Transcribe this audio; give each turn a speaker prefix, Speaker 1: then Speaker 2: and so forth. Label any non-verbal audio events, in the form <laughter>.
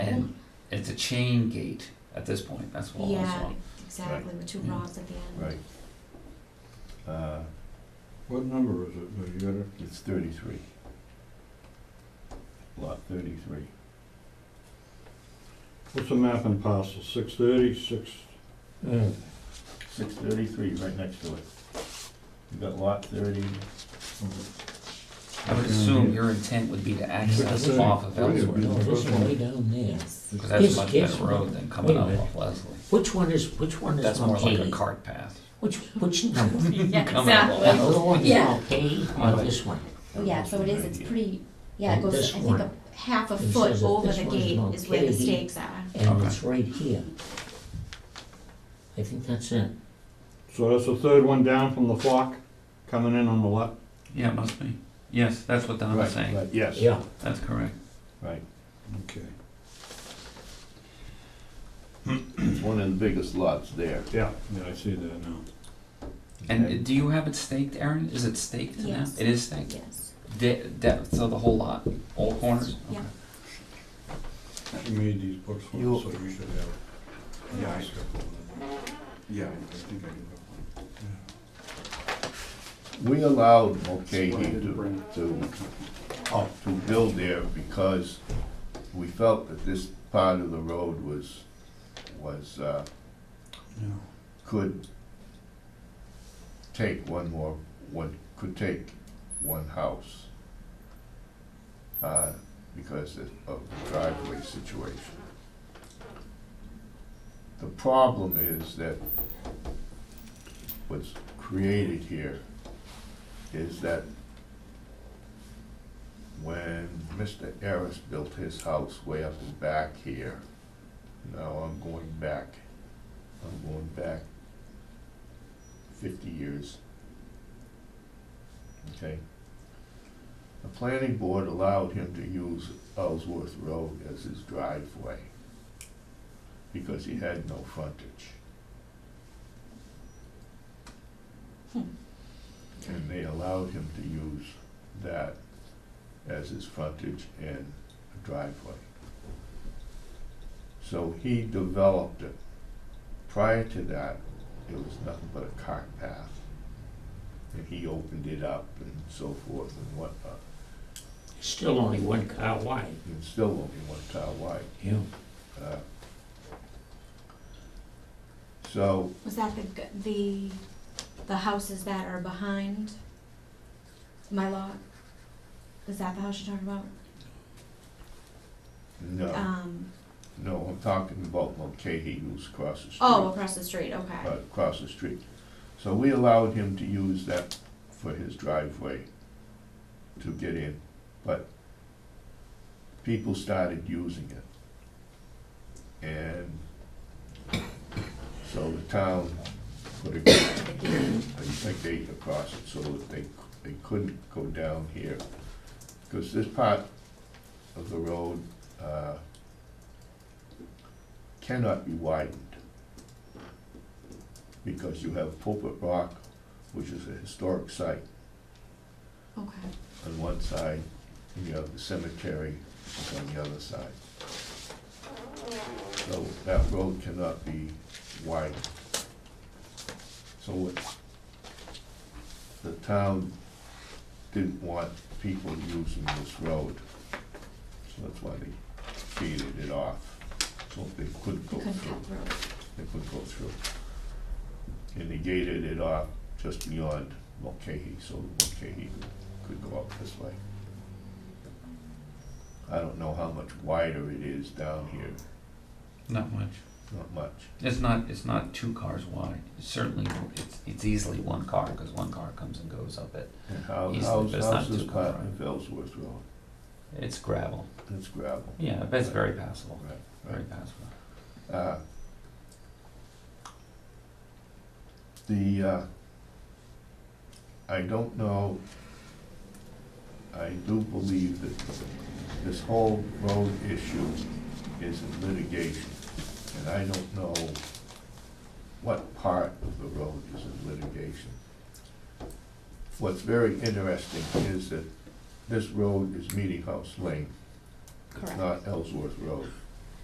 Speaker 1: it's a chain gate at this point, that's what I
Speaker 2: Yeah,
Speaker 1: saw.
Speaker 2: exactly, with two
Speaker 1: Mm.
Speaker 2: rods at the end.
Speaker 3: right. Uh,
Speaker 4: What number is it? Have you got it?
Speaker 3: It's thirty-three. Lot thirty-three.
Speaker 4: What's the map and parcel? Six thirty, six,
Speaker 3: Six thirty-three, right next to it. You got lot thirty.
Speaker 1: I would assume your intent would be to access
Speaker 4: Yeah.
Speaker 1: off of
Speaker 4: Yeah.
Speaker 1: elsewhere,
Speaker 4: Yeah.
Speaker 5: No, this is way down there.
Speaker 2: Yes.
Speaker 1: because that's a
Speaker 5: Yes,
Speaker 1: much
Speaker 5: yes.
Speaker 1: better road than coming
Speaker 5: Wait a
Speaker 1: up
Speaker 5: minute.
Speaker 1: off Leslie.
Speaker 5: Which one is, which one is
Speaker 1: That's more like a
Speaker 5: Mulcahy?
Speaker 1: cart
Speaker 5: <laughs>
Speaker 1: path. <laughs>
Speaker 5: Which, which number?
Speaker 2: Yeah,
Speaker 1: Coming up
Speaker 5: That
Speaker 2: exactly.
Speaker 1: off-
Speaker 5: little one,
Speaker 2: Yeah.
Speaker 5: Mulcahy, or this one?
Speaker 2: Yeah, so it is, it's pretty, yeah, it
Speaker 5: And
Speaker 2: goes,
Speaker 5: this
Speaker 2: I think,
Speaker 5: one.
Speaker 2: a half a
Speaker 5: It
Speaker 2: foot
Speaker 5: says that
Speaker 2: over
Speaker 5: this
Speaker 2: the
Speaker 5: one's
Speaker 2: gate is where the
Speaker 5: Mulcahy.
Speaker 2: stakes are.
Speaker 5: And
Speaker 1: Okay.
Speaker 5: it's right here. I think that's it.
Speaker 4: so that's the third one down from the flock, coming in on the left?
Speaker 1: Yeah, it must be. Yes, that's what Don
Speaker 3: Right,
Speaker 1: was saying.
Speaker 3: right, Yes.
Speaker 5: Yeah.
Speaker 1: That's correct.
Speaker 3: Right.
Speaker 4: Okay.
Speaker 3: It's one of the biggest lots there.
Speaker 4: Yeah, yeah, I see that now.
Speaker 1: And do you have it staked, Aaron? Is it staked now?
Speaker 2: Yes.
Speaker 1: It is staked?
Speaker 2: Yes.
Speaker 1: De- depth, so the whole lot, all corners?
Speaker 2: Yeah.
Speaker 1: Okay.
Speaker 4: She made these books for
Speaker 3: You-
Speaker 4: us, so you should have it.
Speaker 6: Yeah, I-
Speaker 4: Let's go over them.
Speaker 6: Yeah, I think I do have one.
Speaker 3: We allowed Mulcahy
Speaker 6: Why did it
Speaker 3: to,
Speaker 6: bring-
Speaker 3: to, to build there because we felt that this part of the road was, was, uh,
Speaker 4: Yeah.
Speaker 3: could take one more, one, could take one house. Uh, because of of the driveway situation. The problem is that what's created here is that when Mr. Harris built his house way up in back here, now I'm going back, I'm going back fifty years. Okay? The planning board allowed him to use Ellsworth Road as his driveway because he had no frontage. And they allowed him to use that as his frontage and driveway. So he developed it. Prior to that, it was nothing but a cart path. And he opened it up and so forth and uh, whatnot.
Speaker 5: Still only one car wide.
Speaker 3: It's still only one tile wide.
Speaker 5: Yeah.
Speaker 3: uh, So,
Speaker 2: Was that the, g- the, the houses that are behind my lot? Is that the house you're talking about?
Speaker 3: no,
Speaker 2: Um,
Speaker 3: no, I'm talking about Mulcahy who's across the street.
Speaker 2: oh, across the street, okay.
Speaker 3: uh, across the street. So we allowed him to use that for his driveway to get in, but people started using it. And so the town put a gate, a- a gate across it so that they, they couldn't go down here. Because this part of the road, uh, cannot be widened because you have Pulpit Rock, which is a historic site
Speaker 2: Okay,
Speaker 3: on one side, and you have the cemetery on the other side. So that road cannot be widened. So what the town didn't want people using this road, so that's why they gated it off, so they couldn't
Speaker 2: you
Speaker 3: go
Speaker 2: couldn't
Speaker 3: through
Speaker 2: cut through.
Speaker 3: they could go through. And they gated it off just beyond Mulcahy, so Mulcahy could go out this way. I don't know how much wider it is down here,
Speaker 1: Not much.
Speaker 3: not much.
Speaker 1: It's not, it's not two cars wide. It's Certainly, it's, it's easily one car, because one car comes and goes up it.
Speaker 3: And how,
Speaker 1: Easily,
Speaker 3: how's,
Speaker 1: but it's not
Speaker 3: how's this
Speaker 1: too far.
Speaker 3: part of Ellsworth Road?
Speaker 1: It's gravel.
Speaker 3: It's gravel,
Speaker 1: Yeah, that's very passable,
Speaker 3: right,
Speaker 1: very
Speaker 3: right.
Speaker 1: passable.
Speaker 3: Uh, The, uh, I don't know, I do believe that this whole road issue is in litigation, and I don't know what part of the road is in litigation. What's very interesting is that this road is Meeting House Lane, it's
Speaker 2: Correct.
Speaker 3: not Ellsworth Road.